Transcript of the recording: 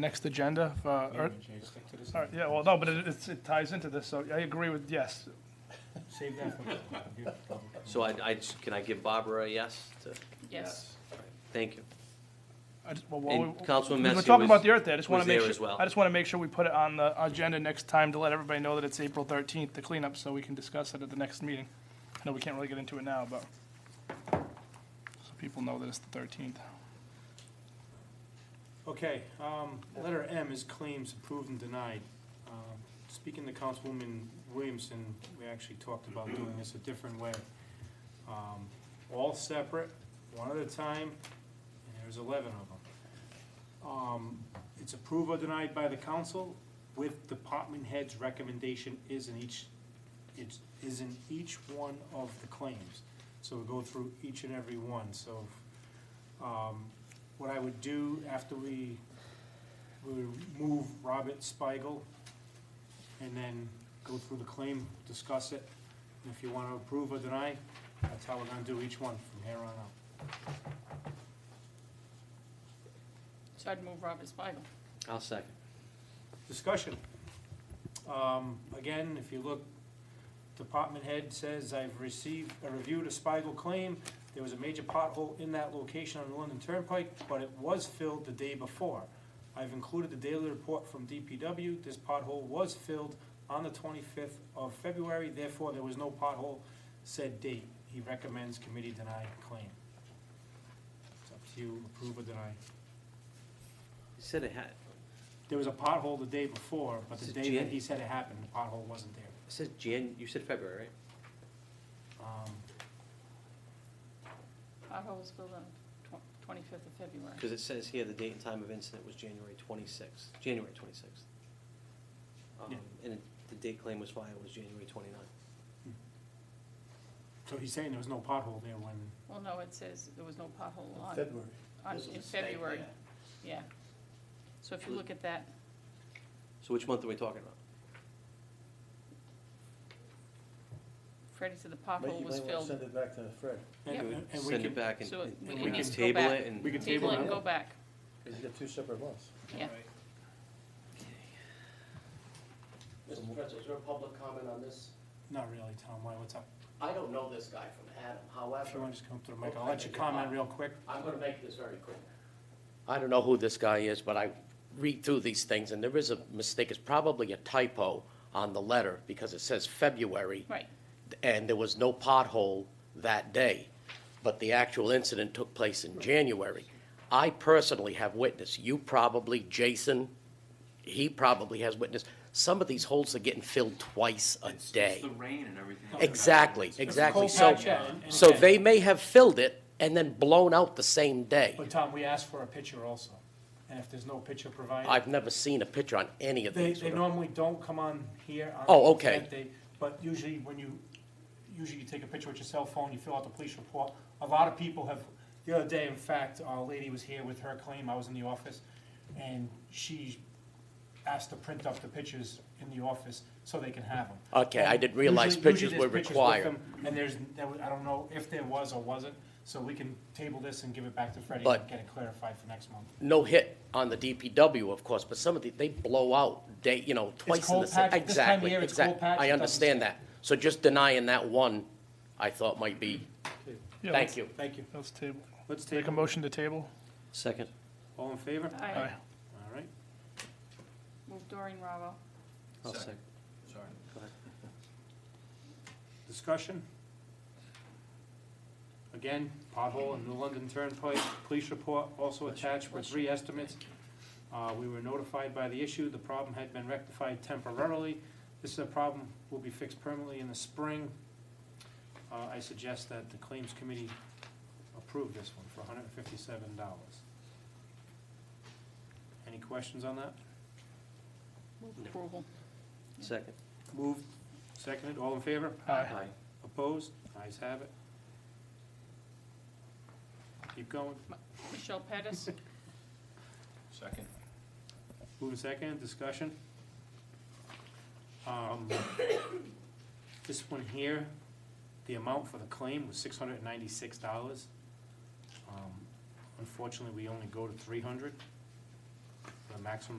the next agenda, for- or, all right, yeah, well, no, but it, it's- it ties into this, so I agree with, yes. Save that for. So I, I, can I give Barbara a yes to? Yes. Thank you. I just- well, while And we- Councilman We Messy were was. talking about the Earth Day, I just want was to make there as sure, well. I just want to make sure we put it on the agenda next time to let everybody know that it's April thirteenth, the cleanup, so we can discuss it at the next meeting. I know we can't really get into it now, but, so people know that it's the thirteenth. Okay, um, letter M is claims approved and denied. Um, Speaking to Councilwoman Williamson, we actually talked about doing this a different way. Um, All separate, one at a time, and there's eleven of them. Um, It's approved or denied by the council with department head's recommendation is in each, it's, is in each one of the claims. So we go through each and every one, so, um, what I would do after we, we would move Robert Spiegel and then go through the claim, discuss it. And if you want to approve or deny, that's how we're going to do each one from here on out. So I'd move Robert Spiegel. I'll second. Discussion. Um, Again, if you look, department head says, "I've received, I reviewed a Spiegel claim. There was a major pothole in that location on the London Turnpike, but it was filled the day before. I've included the daily report from DPW. This pothole was filled on the 25th of February, therefore there was no pothole said date." He recommends committee deny claim. It's up to you, approve or deny. You said it had, There was a pothole the day before, but the Is it day that Jan? he said it happened, the pothole wasn't there. it says Jan, you said February, right? Um, Pothole was filled on twenty-fifth of February. Because it says here the date and time of incident was January twenty-sixth, January twenty-sixth. Um, Yeah. And it- the date claim was filed was January twenty-ninth. So he's saying there was no pothole there when, Well, no, it says there was no pothole on, February. on, There's a in mistake February. there. Yeah. So if you look at that, So which month are we talking about? Freddie said the Mike, pothole you was might want to filled. send it back to Fred, Yeah. and, and we Send it can, back and, So and we we can can just go table back. it and. We can Table it and it. go back. because you got two separate ones. Yeah. Mr. Prince, is there a public comment on this? not really, Tom, why, what's up? I don't know this guy from Adam, If you however, want to just come up to the mic, I'll let you comment real quick. I'm gonna make this very quick. I don't know who this guy is, but I read through these things, and there is a mistake, it's probably a typo on the letter, because it says February. Right. And there was no pothole that day, but the actual incident took place in January. I personally have witnessed, you probably, Jason, he probably has witnessed, some of these holes are getting filled twice a day. the rain and everything. Exactly, exactly. Cold So, patch, yeah, and- and- so they may have filled it and then blown out the same day. But Tom, we asked for a picture also, and if there's no picture provided, I've never seen a picture on any of they, these. they normally don't come on here on. Oh, okay. that day, But usually when you, usually you take a picture with your cell phone, you fill out the police report. A lot of people have, the other day, in fact, a lady was here with her claim, I was in the office, and she asked to print up the pictures in the office so they can have them. Okay, I didn't realize Usually- pictures usually there's were pictures with required. them, And there's, there was- I don't know if there was or wasn't, so we can table this and give it back to Freddie and But- get it clarified for next month. No hit on the DPW, of course, but some of the, they blow out day, you know, twice in cold the same. patch. At this time of Exactly, year, it's exact- cold patch. It I doesn't- understand that. So just denying that one, I thought might be, Yeah, thank you. Thank you. Let's table, Let's make take, a motion to table. Second. all in favor? I Aye. All right. move Doreen Ravo. I'll second. Sorry. Discussion? Again, pothole in the London Turnpike, police report also attached with three estimates. Uh, we were notified by the issue, the problem had been rectified temporarily. This is a problem, will be fixed permanently in the spring. Uh, I suggest that the claims committee approve this one for hundred and fifty-seven dollars. Any questions on that? Move approval. Second. Moved, seconded, all in favor? Aye. Opposed? Ayes have it. Keep going. Michelle Pettis, Second. Moving second, discussion. Um, This one here, the amount for the claim was six hundred and ninety-six Um, dollars. Unfortunately, we only go to three hundred. a maximum